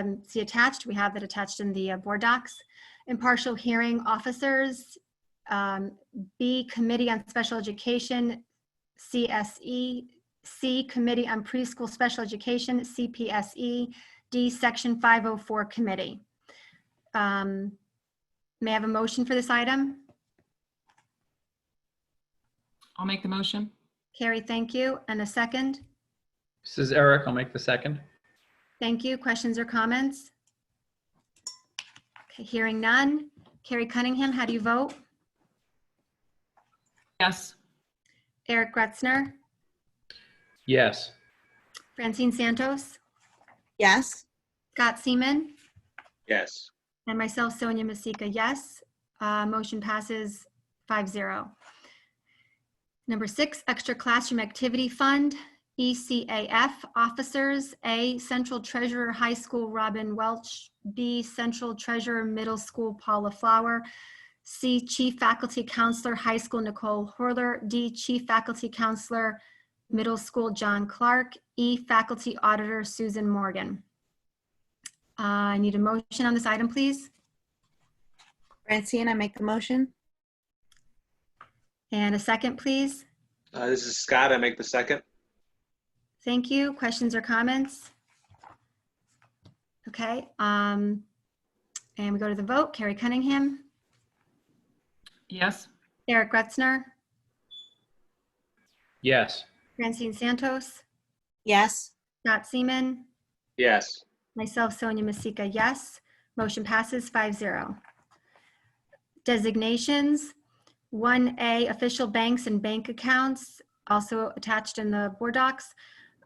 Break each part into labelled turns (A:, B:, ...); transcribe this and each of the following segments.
A: um, see attached. We have that attached in the uh, board docs. Impartial hearing officers, um, B, Committee on Special Education, CSE, C, Committee on Preschool Special Education, CPSE, E, D, Section 504 Committee. Um, May I have a motion for this item?
B: I'll make the motion.
A: Carrie, thank you. And a second?
C: This is Eric. I'll make the second.
A: Thank you. Questions or comments? Okay, Hearing none. Carrie Cunningham, how do you vote?
B: Yes,
A: Eric Gretzner?
C: Yes.
A: Francine Santos?
D: yes,
A: Scott Seaman?
E: yes,
A: And myself, Sonia Masika, yes. Uh, Motion passes 5-0. Number six, Extra Classroom Activity Fund, E ECAF Officers, A, Central Treasurer High School Robin Welch, B, Central Treasurer Middle School Paula Flower, C, Chief Faculty Counselor High School Nicole Horler, D, Chief Faculty Counselor Middle School John Clark, E, Faculty Auditor Susan Morgan. Uh, I need a motion on this item, please.
D: Francine, I make the motion.
A: And a second, please.
E: Uh, this is Scott, I make the second,
A: Thank you. Questions or comments? Okay, um, and we go to the vote. Carrie Cunningham,
B: yes,
A: Eric Gretzner,
C: Yes.
A: Francine Santos,
D: Yes,
A: Scott Seaman,
E: yes,
A: myself, Sonia Masika, yes. Motion passes 5-0. Designations, 1A, official banks and bank accounts, also attached in the board docs.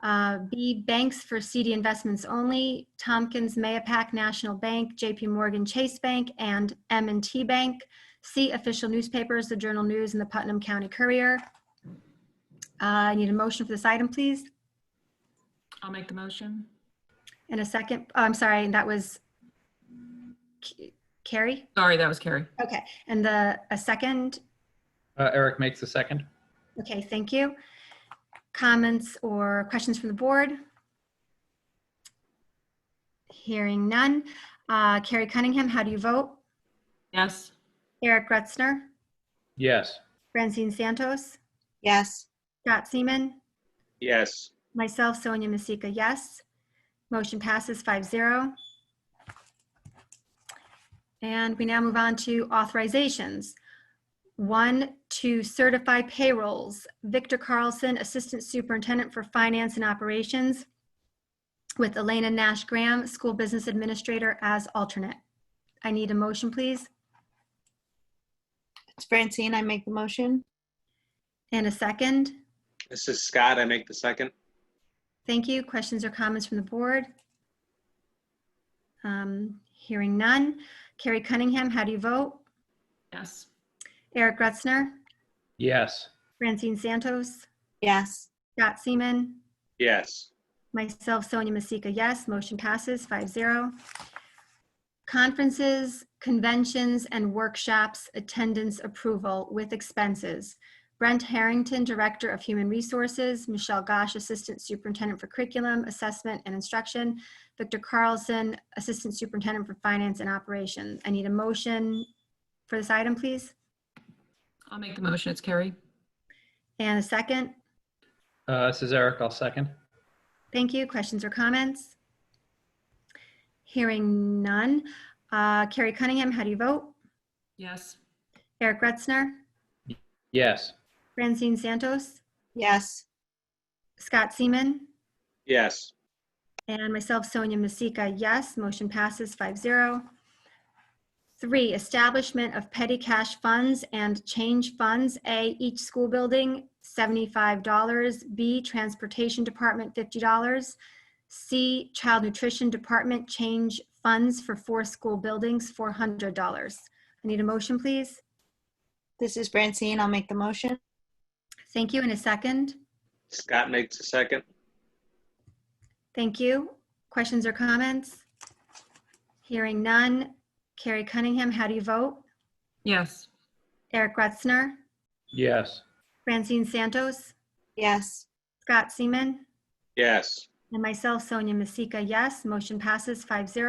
A: Uh, B, banks for CD investments only, Tompkins, Mayapack National Bank, JP Morgan Chase Bank, and m and T Bank. C, official newspapers, the Journal News and the Putnam County Courier. Uh, I need a motion for this item, please.
B: I'll make the motion.
A: And a second, oh, I'm sorry, and that was K- Carrie?
B: Sorry, that was Carrie.
A: Okay, and the, a second,
C: Uh, Eric makes the second.
A: okay, thank you. Comments or questions from the board? Hearing none. Uh, Carrie Cunningham, how do you vote?
B: Yes,
A: Eric Gretzner,
C: Yes.
A: Francine Santos,
D: yes,
A: Scott Seaman,
E: yes,
A: Myself, Sonia Masika, yes. Motion passes 5-0. And we now move on to authorizations. One, to certify payrolls. Victor Carlson, Assistant Superintendent for Finance and Operations, with Elena Nash Graham, School Business Administrator, as alternate. I need a motion, please,
D: it's Francine, I make the motion.
A: and a second.
E: this is Scott, I make the second,
A: Thank you. Questions or comments from the board? Um, Hearing none. Carrie Cunningham, how do you vote?
B: yes,
A: Eric Gretzner,
C: Yes.
A: Francine Santos,
D: Yes,
A: Scott Seaman,
E: yes,
A: myself, Sonia Masika, yes. Motion passes 5-0. Conferences, conventions, and workshops attendance approval with expenses. Brent Harrington, Director of Human Resources, Michelle Gosh, Assistant Superintendent for Curriculum, Assessment, and Instruction, Victor Carlson, Assistant Superintendent for Finance and Operations. I need a motion for this item, please,
B: I'll make the motion. It's Carrie.
A: and a second.
C: Uh, this is Eric. I'll second.
A: Thank you. Questions or comments? Hearing none. Uh, Carrie Cunningham, how do you vote?
B: Yes,
A: Eric Gretzner,
C: Yes.
A: Francine Santos,
D: yes,
A: Scott Seaman,
E: yes,
A: and myself, Sonia Masika, yes. Motion passes 5-0. Three, establishment of petty cash funds and change funds. A, each school building, $75. B, transportation department, $50. C, child nutrition department, change funds for four school buildings, $400. I need a motion, please.
D: this is Francine, I'll make the motion.
A: Thank you. In a second.
E: Scott makes the second,
A: Thank you. Questions or comments? Hearing none. Carrie Cunningham, how do you vote?
B: yes,
A: Eric Gretzner,
C: Yes.
A: Francine Santos,
D: Yes,
A: Scott Seaman,
E: yes,
A: And myself, Sonia Masika, yes. Motion passes 5-0.